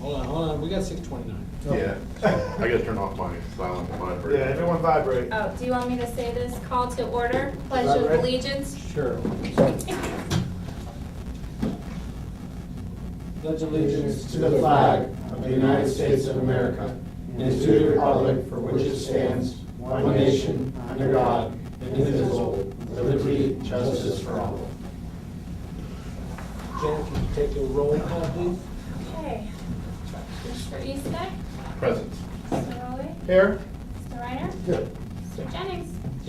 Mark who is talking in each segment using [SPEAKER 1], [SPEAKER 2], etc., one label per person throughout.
[SPEAKER 1] Hold on, hold on, we got six twenty-nine.
[SPEAKER 2] Yeah, I gotta turn off my silent
[SPEAKER 3] Yeah,
[SPEAKER 2] vibrate.
[SPEAKER 3] everyone vibrate.
[SPEAKER 4] Oh, do you want me to say this? Call to order, pledge of
[SPEAKER 3] right?
[SPEAKER 4] allegiance.
[SPEAKER 1] Sure. Pledge
[SPEAKER 5] allegiance to the flag of the United States of America and to the republic for which it stands, one nation, under God, indivisible, with liberty and justice for all.
[SPEAKER 1] Janet, can you take the roll call, please?
[SPEAKER 4] Okay. Mr. Eastick,
[SPEAKER 2] Present.
[SPEAKER 4] Mr. Rowley,
[SPEAKER 3] Here?
[SPEAKER 4] Mr. Reiner,
[SPEAKER 5] Good.
[SPEAKER 4] Mr. Jennings.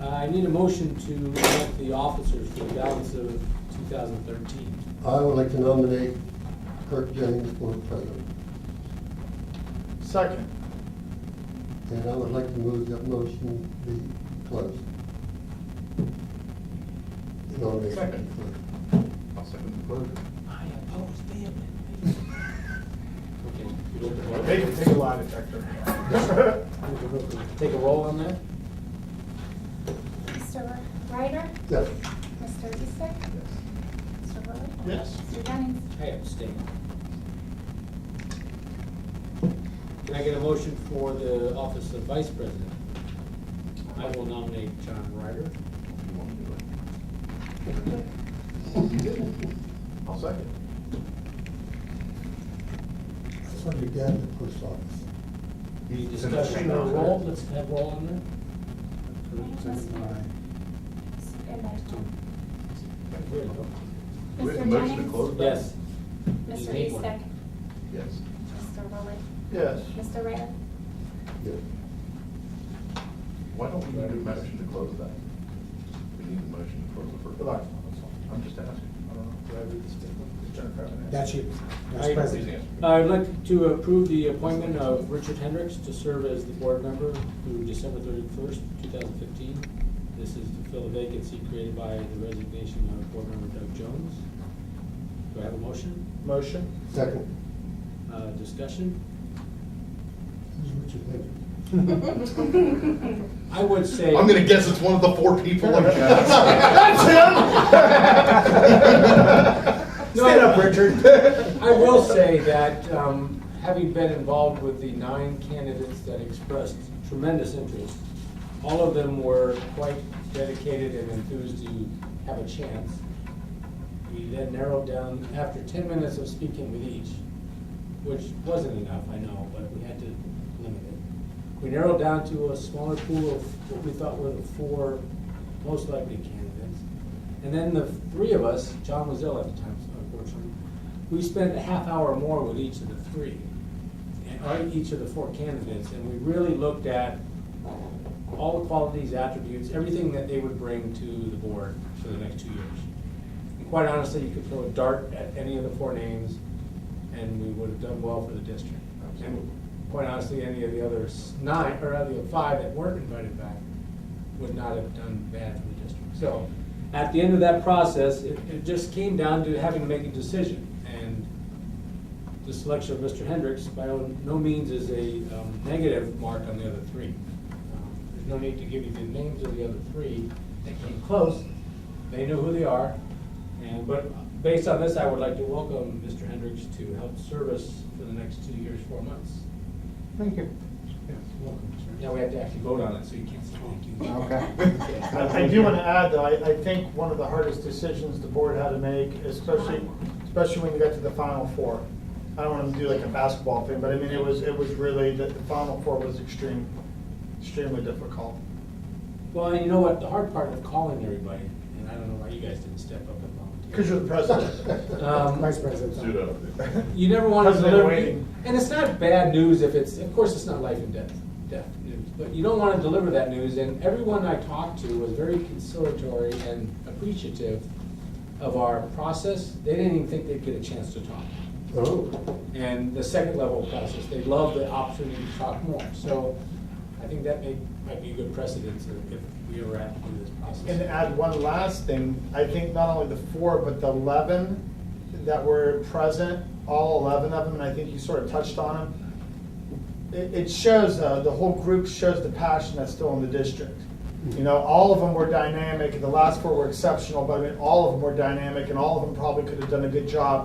[SPEAKER 1] Uh, I need a motion to elect the officers for the balance of two thousand thirteen.
[SPEAKER 5] I would like to nominate Kirk Jennings for president,
[SPEAKER 3] Second.
[SPEAKER 5] and I would like to move that motion be closed. The Nomination.
[SPEAKER 2] Second. I'll second the closure.
[SPEAKER 1] I oppose the
[SPEAKER 3] They
[SPEAKER 1] amendment.
[SPEAKER 3] can take a lie detector.
[SPEAKER 1] Okay. Take a roll on that?
[SPEAKER 4] Mr. Reiner,
[SPEAKER 5] Yes.
[SPEAKER 4] Mr. Eastick, Mr. Rowley.
[SPEAKER 3] Yes.
[SPEAKER 4] Mr. Jennings.
[SPEAKER 1] I abstain. Can I get a motion for the office of vice president? I will nominate John Ryder.
[SPEAKER 2] If you want to do it.
[SPEAKER 3] I'll second.
[SPEAKER 5] That's what you get at the post office.
[SPEAKER 1] Any discussion or roll, let's have roll on that.
[SPEAKER 4] And then
[SPEAKER 2] Wait,
[SPEAKER 4] Mr.
[SPEAKER 2] motion to
[SPEAKER 4] Jennings.
[SPEAKER 2] close?
[SPEAKER 1] Yes.
[SPEAKER 4] Mr.
[SPEAKER 1] Need one.
[SPEAKER 4] Eastick,
[SPEAKER 2] Yes.
[SPEAKER 4] Mr. Rowley,
[SPEAKER 3] Yes.
[SPEAKER 4] Mr. Reiner.
[SPEAKER 5] Yes.
[SPEAKER 2] Why don't we need a motion to close that? We need a motion to close the first.
[SPEAKER 3] Good luck.
[SPEAKER 2] I'm just asking.
[SPEAKER 3] I don't know. Did I read this differently?
[SPEAKER 6] That's you,
[SPEAKER 1] I-
[SPEAKER 6] Vice President.
[SPEAKER 1] Uh, I'd like to approve the appointment of Richard Hendricks to serve as the board member through December thirty-first, two thousand fifteen. This is to fill a vacancy created by the resignation of board member Doug Jones. Do I have a motion?
[SPEAKER 3] Motion?
[SPEAKER 5] Second.
[SPEAKER 1] Uh, discussion?
[SPEAKER 5] Who's Richard Hendricks?
[SPEAKER 1] I would say.
[SPEAKER 2] I'm gonna guess it's one of the four people. I'm guessing.
[SPEAKER 3] That's
[SPEAKER 1] No,
[SPEAKER 3] Stand up,
[SPEAKER 1] I-
[SPEAKER 3] Richard.
[SPEAKER 1] I will say that, um, having been involved with the nine candidates that expressed tremendous interest, all of them were quite dedicated and enthused to have a chance. We then narrowed down, after ten minutes of speaking with each, which wasn't enough, I know, but we had to limit it. We narrowed down to a smaller pool of what we thought were the four most likely candidates. And then the three of us, John was ill at the time, so unfortunately, we spent a half hour more with each of the three, and- or each of the four candidates, and we really looked at all the qualities, attributes, everything that they would bring to the board for the next two years. And quite honestly, you could throw a dart at any of the four names, and we would have done well for the district. And quite honestly, any of the others nine, or any of the five that weren't invited back would not have done bad for the district. So, at the end of that process, it, it just came down to having to make a decision. And the selection of Mr. Hendricks by no means is a um, negative mark on the other three. Um, There's no need to give you the names of the other three. They came close, they know who they are. And, but based on this, I would like to welcome Mr. Hendricks to help serve us for the next two years, four months.
[SPEAKER 6] Thank you.
[SPEAKER 1] Now we have to actually vote on it, so you can't say thank you.
[SPEAKER 3] I I do want to add, though, I, I think one of the hardest decisions the board had to make, especially, especially when you got to the final four. I don't want to do like a basketball thing, but I mean, it was, it was really, the, the final four was extreme, extremely difficult.
[SPEAKER 1] Well, and you know what, the hard part of calling everybody, and I don't know why you guys didn't step up and volunteer.
[SPEAKER 3] Because you're the president.
[SPEAKER 1] Um,
[SPEAKER 6] Vice President.
[SPEAKER 2] Pseudo.
[SPEAKER 1] You never want to
[SPEAKER 3] Because they're
[SPEAKER 1] deliver,
[SPEAKER 3] waiting.
[SPEAKER 1] and it's not bad news if it's, of course, it's not life and death, death news, but you don't want to deliver that news, and everyone I talked to was very conciliatory and appreciative of our process. They didn't even think they'd get a chance to talk.
[SPEAKER 5] Oh,
[SPEAKER 1] And the second level process, they love the opportunity to talk more, so I think that may, might be a good precedent if- if we ever have to do this process.
[SPEAKER 3] And to add one last thing, I think not only the four, but the eleven that were present, all eleven of them, and I think you sort of touched on them. It, it shows, uh, the whole group shows the passion that's still in the district. You know, all of them were dynamic, and the last four were exceptional, but I mean, all of them were dynamic, and all of them probably could have done a good job